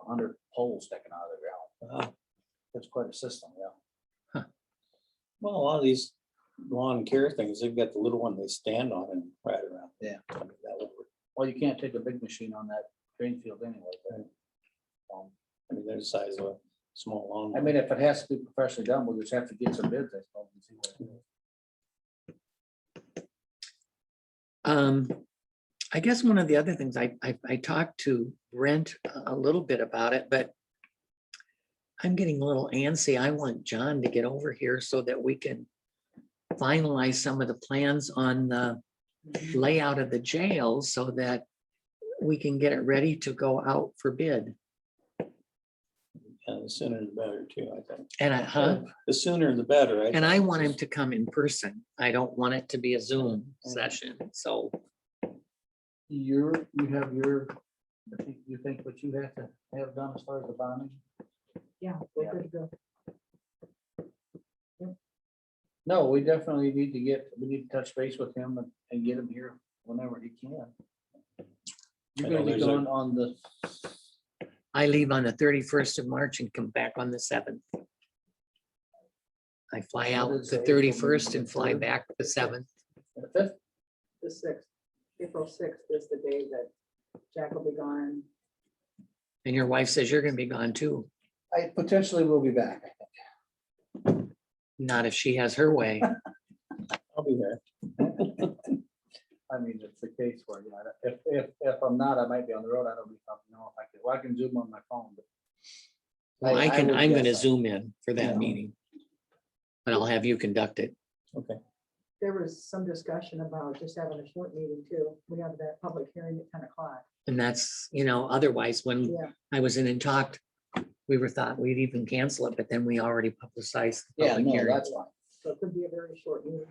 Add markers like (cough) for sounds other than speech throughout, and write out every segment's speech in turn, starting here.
hundred poles sticking out of the ground. It's quite a system, yeah. Well, a lot of these lawn care things, they've got the little one they stand on and ride around. Yeah. I mean, that would work. Well, you can't take a big machine on that drain field anyway. but, um, I mean, they're the size of a small lawn. I mean, if it has to be professionally done, we'll just have to get some bids, I suppose. and see what- Um, I guess one of the other things I, I, I talked to Brent a- a little bit about it, but I'm getting a little antsy. I want John to get over here so that we can finalize some of the plans on the layout of the jail so that we can get it ready to go out for bid. And the sooner the better too, I think. And I, huh? The sooner the better. And I want him to come in person. I don't want it to be a Zoom session, so. Your, you have your, I think you think what you have to have done as far as the bonding? Yeah, Yeah. we're good to go. No, we definitely need to get, we need to touch base with him and, and get him here whenever he can. You're I know gonna be there's a- going on the, I leave on the thirty-first of March and come back on the seventh. I fly out is the the April meeting, thirty-first and the fly third? back the seventh. the fifth, The sixth, April sixth is the day that Jack will be gone. And your wife says you're gonna be gone too, I potentially will be back. not if she has (laughs) her way. I'll be there. I mean, it's the case where, you know, if, if, if I'm not, I might be on the road, I don't know if I could, well, I can zoom on my phone, but. Well, I can, would I'm gonna guess I- zoom in for Yeah. that meeting. But I'll have you conduct it. There was some discussion about just having a short meeting too. We have that public hearing at ten o'clock. And that's, you know, otherwise, when Yeah, I was in and talked, we were thought we'd even cancel it, but then we already publicized. the Yeah, public no, hearing. that's fine. so it could be a very short meeting.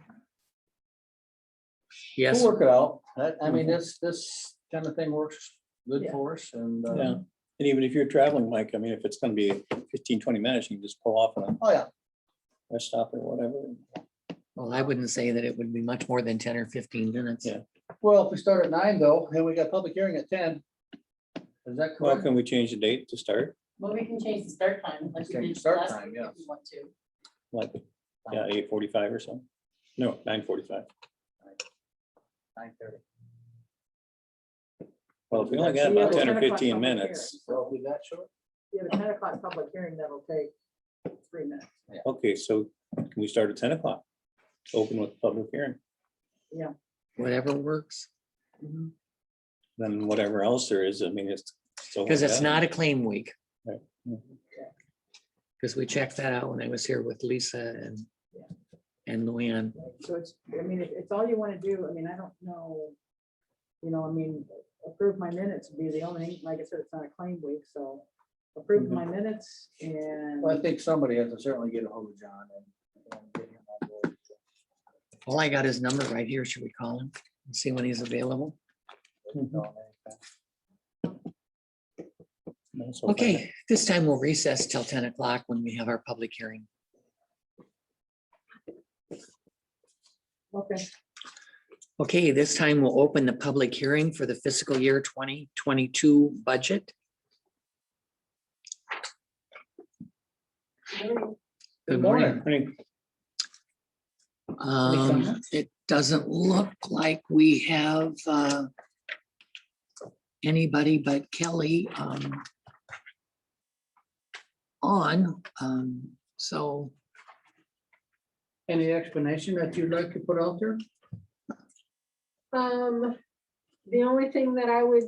Yes, We'll work it out. That- I mean, this, this kind of thing works good Yeah. for us and, uh, Yeah. And even if you're traveling, Mike, I mean, if it's gonna be 15, 20 minutes, you can just pull off and oh, yeah. rest stop or whatever. well, I wouldn't say that it would be much more than ten or fifteen minutes. Yeah. Well, if we start at nine though, and we got public hearing at ten. Is that Well, correct? can we change the date to start? Well, we can change the start time, like we Change did start last time, week if we yes. want to. Like, yeah, eight forty-five or so? No, nine forty-five. Nine thirty. Well, if we only got We have about a ten or 10 o'clock fifteen public hearing, minutes, So so if we that short? We have a ten o'clock public hearing that'll take three minutes. okay, so can we start at ten o'clock? Open with public hearing, Whatever works. then whatever else there is, I mean, it's. so Because it's done. not a claim week. Right. Because we checked that out when I was here with Lisa and, Yeah. and Luann. So it's, I mean, it- it's all you want to do. I mean, I don't know. You know, I mean, approve my minutes would be the only, like I said, it's not a claim week, so approve my minutes and. Well, I think somebody has to certainly get a hold of John and. and get him on board. All I got is number right here. Should we call him? and See when he's available? Mm-hmm. No, so far. Okay, this time we'll recess till ten o'clock when we have our public hearing. Okay. Okay, this time we'll open the public hearing for the fiscal year twenty twenty-two budget. Good morning. Morning. Um, it doesn't look like we have, uh, anybody but Kelly, um, on, um, so, Any explanation that you'd like to put out there? Um, the only thing that I would,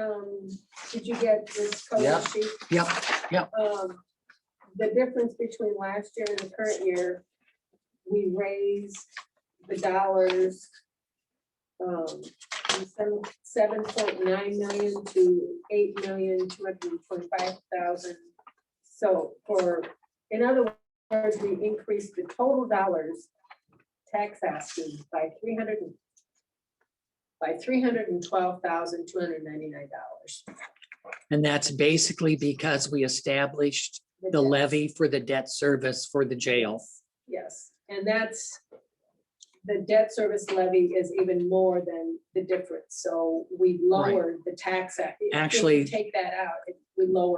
um, did you get this Yeah. color sheet? yep, Um, the difference between last year and the current year, we raised the dollars um, from seven point nine million to eight million, two hundred and twenty-five thousand. So for, in other words, we increased the total dollars tax asking by three hundred by three hundred and twelve thousand, two hundred and ninety-nine dollars. and that's basically because we established the levy for the debt service for the jail. Yes, and that's, the debt service levy is even more than the difference, so we lowered the tax. act- if you Actually- Take that out, it- we lowered